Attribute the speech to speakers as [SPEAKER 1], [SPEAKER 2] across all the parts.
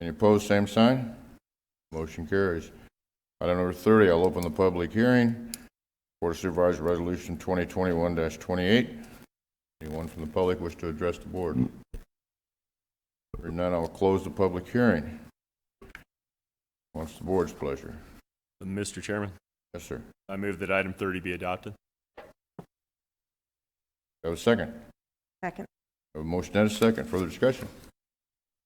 [SPEAKER 1] Any opposed, same sign? Motion carries. Item number 30, I'll open the public hearing. Board of Supervisors Resolution 2021-28. Anyone from the public wish to address the board? Hearing none, I'll close the public hearing. What's the board's pleasure?
[SPEAKER 2] Mr. Chairman,
[SPEAKER 1] Yes, sir.
[SPEAKER 2] I move that item 30 be adopted.
[SPEAKER 1] Have a second?
[SPEAKER 3] Second.
[SPEAKER 1] Have a motion and a second. Further discussion?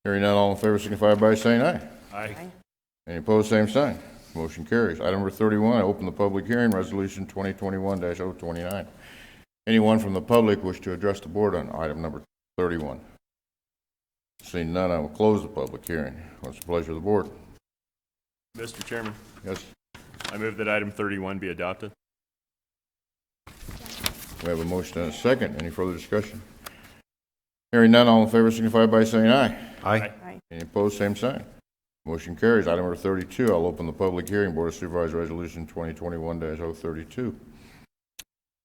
[SPEAKER 1] Hearing none, all in favor signify by saying aye.
[SPEAKER 2] Aye.
[SPEAKER 1] Any opposed, same sign. Motion carries. Item number 31, I open the public hearing, Resolution 2021-029. Anyone from the public wish to address the board on item number 31? Seeing none, I will close the public hearing. What's the pleasure of the board?
[SPEAKER 2] Mr. Chairman,
[SPEAKER 1] Yes,
[SPEAKER 2] I move that item 31 be adopted.
[SPEAKER 1] we have a motion and a second. Any further discussion? Hearing none, all in favor signify by saying aye.
[SPEAKER 2] Aye.
[SPEAKER 1] Any opposed, same sign. Motion carries. Item number 32, I'll open the public hearing, Board of Supervisors Resolution 2021-032.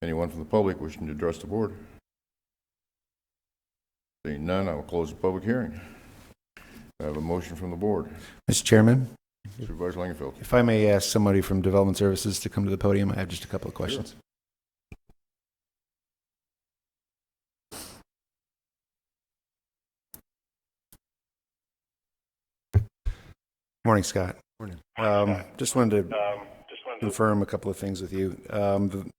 [SPEAKER 1] Anyone from the public wishing to address the board? Seeing none, I will close the public hearing. I have a motion from the board.
[SPEAKER 4] Mr. Chairman,
[SPEAKER 1] Supervisor Langenfeld.
[SPEAKER 4] if I may ask somebody from Development Services to come to the podium, I have just a couple of questions. Morning, Scott. Morning. Um, just wanted to confirm a couple of things with you. Um, the-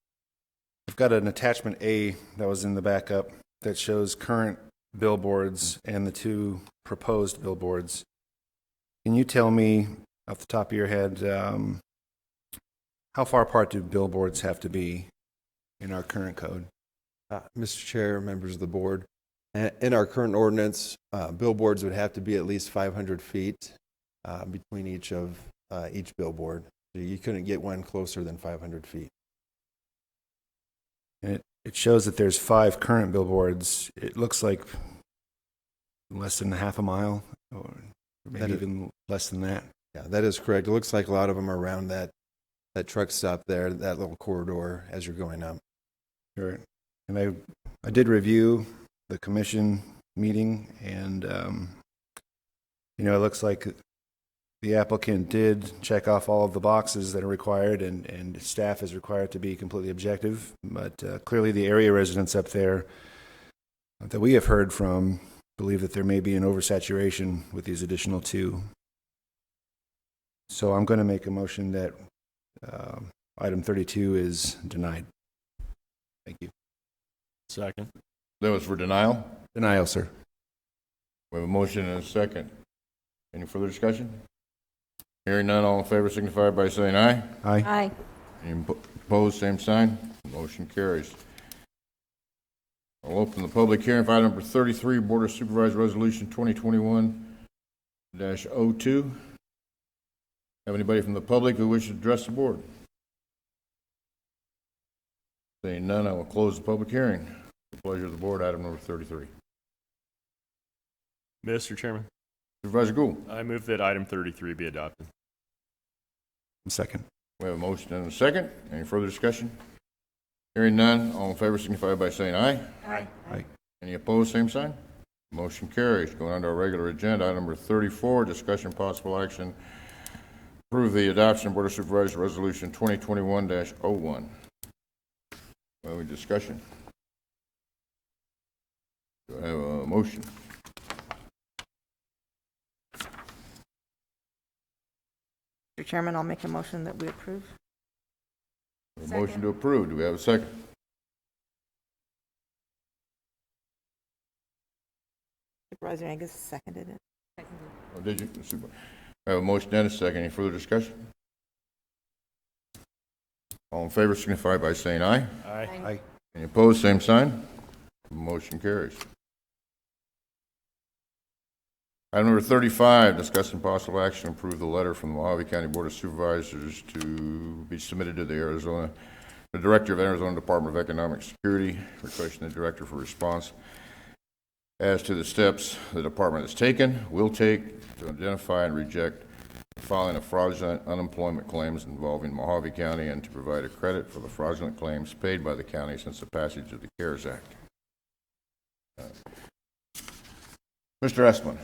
[SPEAKER 4] I've got an attachment A that was in the backup that shows current billboards and the two proposed billboards. Can you tell me off the top of your head, um, how far apart do billboards have to be in our current code?
[SPEAKER 5] Uh, Mr. Chair, members of the board, uh, in our current ordinance, uh, billboards would have to be at least 500 feet uh, between each of, uh, each billboard. So You couldn't get one closer than 500 feet.
[SPEAKER 4] And it, it shows that there's five current billboards. It looks like less than half a mile, or
[SPEAKER 5] That
[SPEAKER 4] maybe
[SPEAKER 5] is-
[SPEAKER 4] even less than that.
[SPEAKER 5] Yeah, that is correct. It looks like a lot of them are around that, that truck stop there, that little corridor as you're going up.
[SPEAKER 4] Sure. And I, I did review the commission meeting and, um, you know, it looks like the applicant did check off all of the boxes that are required and, and staff is required to be completely objective. But, uh, clearly the area residents up there that we have heard from believe that there may be an oversaturation with these additional two. So I'm going to make a motion that, um, item thirty-two is denied. Thank you.
[SPEAKER 2] Second.
[SPEAKER 1] That was for denial?
[SPEAKER 4] Denial, sir.
[SPEAKER 1] We have a motion and a second. Any further discussion? Hearing none, all in favor signify by saying aye.
[SPEAKER 4] Aye.
[SPEAKER 3] Aye.
[SPEAKER 1] Any po- Opposed, same sign. Motion carries. I'll open the public hearing for item number 33, Board of Supervisors Resolution 2021-02. Have anybody from the public who wishes to address the board? Seeing none, I will close the public hearing. The pleasure of the board, item number 33.
[SPEAKER 2] Mr. Chairman,
[SPEAKER 1] Supervisor Gould,
[SPEAKER 2] I move that item 33 be adopted.
[SPEAKER 4] Second.
[SPEAKER 1] we have a motion and a second. Any further discussion? Hearing none, all in favor signify by saying aye.
[SPEAKER 3] Aye.
[SPEAKER 1] Any opposed, same sign? Motion carries. Going on to our regular agenda, item number 34, discussion possible action, approve the adoption of Board of Supervisors Resolution 2021-01. Well, we discussion. Do I have a motion?
[SPEAKER 3] Mr. Chairman, I'll make a motion that we approve.
[SPEAKER 1] A motion to approve. Do we have a second?
[SPEAKER 3] Supervisor Angus seconded it.
[SPEAKER 1] Or Oh, did you? super- I have a motion and a second. Any further discussion? All in favor signify by saying aye.
[SPEAKER 2] Aye.
[SPEAKER 1] Any opposed, same sign. Motion carries. Item number 35, discuss and possible action, approve the letter from the Mojave County Board of Supervisors to be submitted to the Arizona, the Director of Arizona Department of Economic Security, requesting the Director for response as to the steps the department has taken, will take, to identify and reject the filing of fraudulent unemployment claims involving Mojave County and to provide a credit for the fraudulent claims paid by the county since the Uh, passage of the CARES Act. Mr. Esplin,